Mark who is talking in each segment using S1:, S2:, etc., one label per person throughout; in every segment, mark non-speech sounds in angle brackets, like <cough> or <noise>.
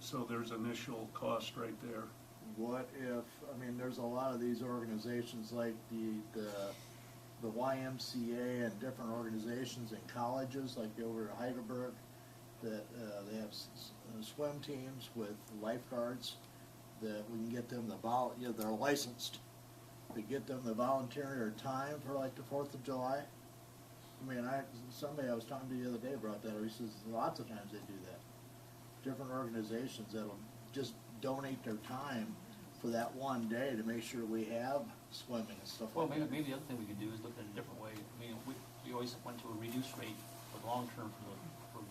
S1: So there's initial cost right there. <laughs>
S2: What if, I mean, there's a lot of these organizations like the, the, the YMCA and different organizations and colleges, like over at Heidelberg, that, uh, they have s- s- uh, swim teams with lifeguards, that we can get them the vol, you know, they're licensed, to get them the volunteer time for like the Fourth of July. I mean, I, somebody I was talking to the other day about that, he says lots of times they do that different organizations that'll just donate their time for that one day to make sure we have swimming and stuff
S3: Well,
S2: like
S3: maybe,
S2: that.
S3: maybe the other thing we could do is look at it a different way. I mean, we, we always went to a reduced rate for the long term for the, for the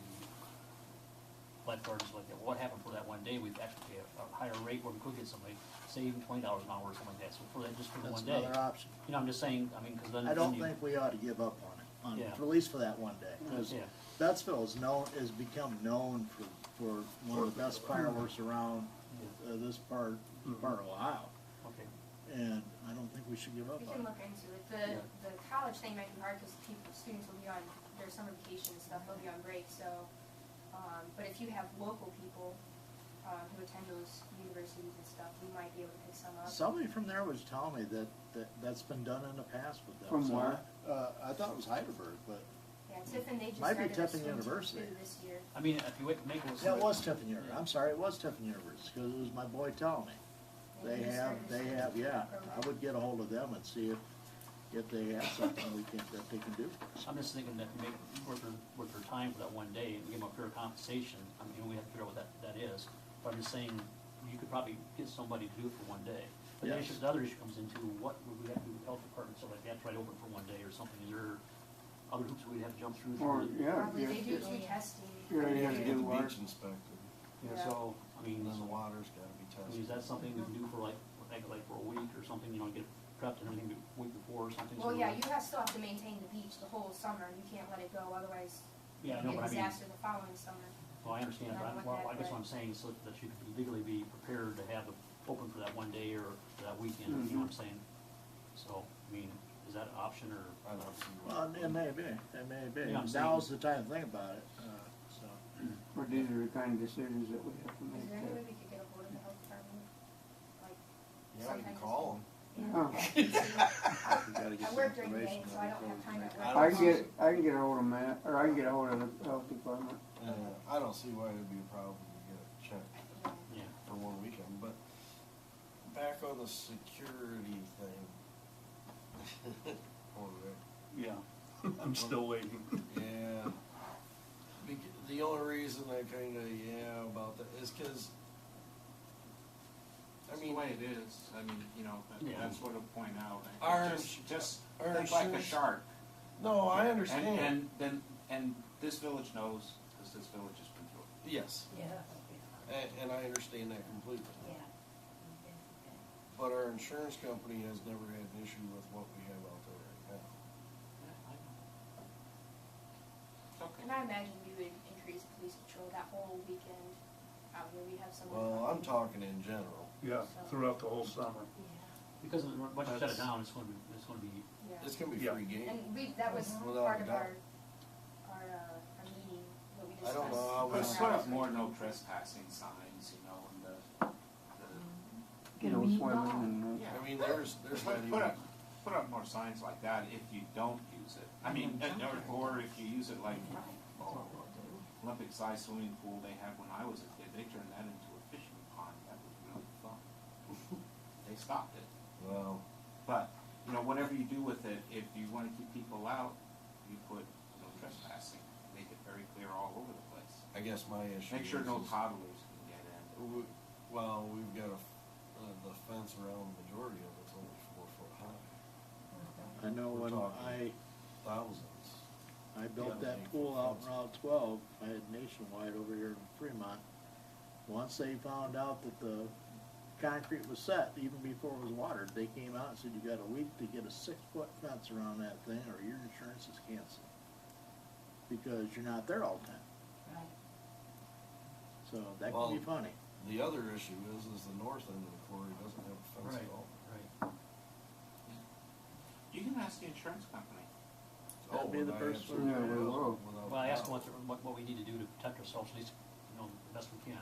S3: lifeguards like that. What happened for that one day, we've actually paid a- a higher rate where we could get somebody, say even twenty dollars an hour or something like that, so for that, just for the
S2: That's
S3: one day.
S2: another option.
S3: You know, I'm just saying, I mean, because then.
S2: I don't
S3: then you-
S2: think we ought to give up on it, on,
S3: Yeah.
S2: for at least for that one day. Because
S3: Yeah.
S2: Bettsville is known, has become known for, for one of the best fireworks around uh, this part, part of Ohio.
S3: Okay.
S2: And I don't think we should give up
S4: We
S2: on
S4: can
S2: it.
S4: look into it.
S3: Yeah.
S4: The, the college thing might be hard because people, students will be on their summer vacation and stuff, they'll be on break, so. Um, but if you have local people, um, who attend those universities and stuff, we might be able to pick some up.
S2: Somebody from there was telling me that, that, that's been done in the past with them.
S5: From
S2: So I-
S5: where?
S2: Uh, I thought it was Heidelberg, but,
S4: Yeah, Tiffin, they just
S2: Might be
S4: started their
S2: Tiffin
S4: swim team
S2: University.
S4: too this year.
S3: I mean, if you wait, make it.
S2: yeah, it was Tiffin University,
S3: Yeah.
S2: I'm sorry, it was Tiffin University, because it was my boy telling me. They
S4: just
S2: have,
S4: started their
S2: they
S4: swim
S2: have,
S4: team
S2: yeah.
S4: program.
S2: I would get a hold of them and see if, if they have something we can, that they can do.
S3: I'm just thinking that to make, worth their, worth their time for that one day, and give them a fair compensation, I mean, we have to figure out what that, that is. But I'm just saying, you could probably get somebody to do it for one day. But the
S2: Yes.
S3: issue, the other issue comes into what would we have to do with health department, so like that's right open for one day or something, is there other hoops we'd have to jump through?
S5: Or,
S3: for-
S5: yeah,
S4: Probably
S5: you
S4: they do
S5: you
S4: through testing.
S5: already have to get
S6: Get the
S5: water.
S6: beach inspected,
S3: Yeah, so, I mean,
S6: and then the water's gotta be
S3: I
S6: tested.
S3: mean, is that something we can do for like, like, like for a week or something, you know, get prepped and everything the week before or something? so
S4: Well,
S3: we-
S4: yeah, you have, still have to maintain the beach the whole summer, you can't let it go, otherwise you
S3: Yeah, I
S4: get
S3: know, but I
S4: a
S3: mean.
S4: disaster the following summer.
S3: Well, I understand, but I'm,
S4: Not
S3: well, I
S4: like
S3: guess
S4: that,
S3: what I'm saying is so that you could legally be prepared to have it open for that one day or for that weekend, you know what I'm saying? So, I mean, is that an option or?
S6: I don't see
S2: Well,
S6: why.
S2: it may be, it may be.
S3: Yeah, I'm saying-
S2: Now's the time to think about it, uh, so.
S5: But these are the kind of decisions that we have to
S4: Is there any way
S5: make. uh,
S4: we could get ahold of the health department? Like,
S6: Yeah, you can
S4: sometimes
S6: call them.
S4: <laughs>
S5: Yeah.
S2: we gotta get
S4: I
S2: some
S4: work during the day,
S2: information
S4: so
S2: on
S4: I
S2: it.
S4: don't have time at work.
S6: I
S5: I can get, I can get ahold of Matt, or I can get ahold of the health department.
S6: Yeah, uh, I don't see why it'd be a problem to get it checked
S3: Yeah,
S4: Yeah.
S6: for one weekend, but back on the security
S7: <laughs>
S6: thing. Poor Rick.
S3: yeah.
S1: I'm still waiting.
S6: Yeah. Bec- The only reason I kinda, yeah, about that is cause, I
S7: That's the
S6: mean,
S7: way it is, I mean, you know, that-
S3: Yeah.
S7: that's what I'll point out. It
S6: Our
S7: just-
S6: ins-
S7: Just,
S6: our
S7: think like a
S6: insurance-
S7: shark.
S6: no, I
S7: And-
S6: understand.
S7: And, and, and this village knows, because this village has been through it.
S6: Yes,
S8: Yeah,
S6: and, and I understand that completely.
S8: yeah.
S6: But our insurance company has never had an issue with what we have out there right now.
S4: And I imagine you would increase police patrol that whole weekend, out where we have someone.
S6: Well, I'm talking in general.
S1: Yeah, throughout the whole summer.
S3: Because of the- once you shut it
S6: That's-
S3: down, it's gonna be, it's gonna be,
S4: Yeah.
S6: It's gonna be
S1: Yeah.
S6: free game.
S4: And we, that was
S6: Without
S4: part
S6: a
S4: of
S6: doubt.
S4: our, our, uh, our meeting, what we
S6: I
S4: discussed.
S6: don't know how
S7: But
S6: Well-
S7: put up more no trespassing signs, you know, and the, the,
S5: You
S8: Get
S5: know,
S8: a meat
S5: swimming
S8: ball.
S5: and, uh,
S7: yeah.
S6: I mean, there's, there's not
S7: Put,
S6: even,
S7: put up, put up more signs like that if you don't use it. I mean, and- or, or if you use it like, oh, Olympic sized swimming pool they had when I was a kid, they turned that into a fishing pond, that was really <laughs> fun. They stopped it.
S6: well,
S7: But, you know, whatever you do with it, if you wanna keep people out, you put no trespassing, make it very clear all over the place.
S6: I guess my issue
S7: Make sure
S6: is-
S7: no
S6: is-
S7: toddlers can get in.
S6: We- Well, we've got a, f- uh, the fence around the majority of it's only four foot high,
S2: I know
S6: We're
S2: when
S6: talking.
S2: I,
S6: thousands.
S2: I built
S6: Yeah.
S2: that pool out in Route twelve, I had Nationwide over here in Fremont. Once they found out that the concrete was set, even before it was watered, they came out and said, you got a week to get a six-foot fence around that thing, or your insurance is canceled. Because you're not there all the time, so that can
S6: Well-
S2: be funny.
S6: The other issue is, is the north end of the quarry doesn't have a fence
S3: right,
S6: at all.
S3: right.
S7: You can ask the insurance company.
S6: Oh,
S2: That'd be the
S6: I
S2: first
S6: absolutely
S5: one. Yeah, we
S6: will,
S5: will.
S6: without
S3: Well, I asked
S6: doubt.
S3: what, what, what we need to do to protect ourselves, at least, you know, the best we can.